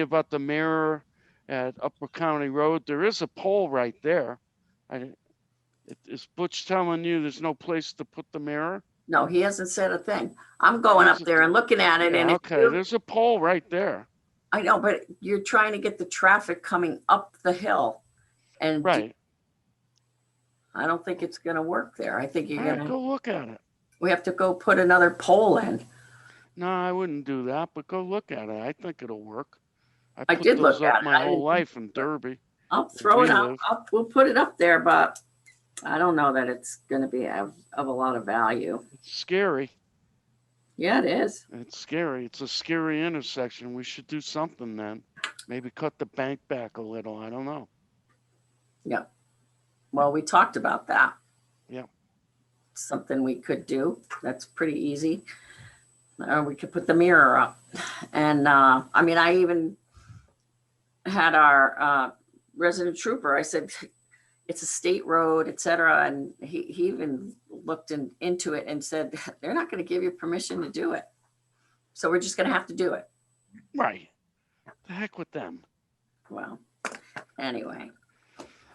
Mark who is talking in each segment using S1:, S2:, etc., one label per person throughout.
S1: about the mirror at Upper County Road. There is a pole right there. I, is Butch telling you there's no place to put the mirror?
S2: No, he hasn't said a thing. I'm going up there and looking at it and
S1: Yeah,
S2: if
S1: Okay,
S2: you-
S1: there's a pole right there.
S2: I know, but you're trying to get the traffic coming up the hill. And do-
S1: Right.
S2: I don't think it's gonna work there. I think you're
S1: All right,
S2: gonna,
S1: go look at it.
S2: we have to go put another pole in.
S1: No, I wouldn't do that, but go look at it. I think it'll work.
S2: I
S1: put
S2: did look
S1: those up
S2: at it. I
S1: My whole
S2: didn't-
S1: life in Derby.
S2: I'll throw it
S1: we
S2: out,
S1: live.
S2: up, we'll put it up there, but I don't know that it's gonna be of, of a lot of value.
S1: It's scary.
S2: Yeah, it is.
S1: It's scary. It's a scary intersection. We should do something then. Maybe cut the bank back a little. I don't know.
S2: Well, we talked about that.
S1: Yeah.
S2: Something we could do. That's pretty easy. Or we could put the mirror up. And, uh, I mean, I even had our, uh, resident trooper, I said, it's a state road, et cetera. And he, he even looked in, into it and said, they're not going to give you permission to do it. So we're just going to have to do it.
S1: Right. The heck with them.
S2: Well, anyway,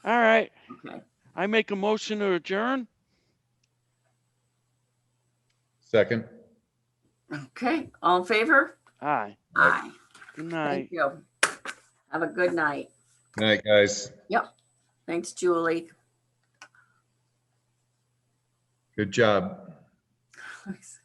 S1: All right.
S2: okay.
S1: I make a motion to adjourn.
S3: Second.
S2: Okay, all in favor?
S1: Aye.
S2: Aye.
S1: Good night.
S2: Thank you. Have a good night.
S3: Good night, guys.
S2: Thanks, Julie.
S3: Good job.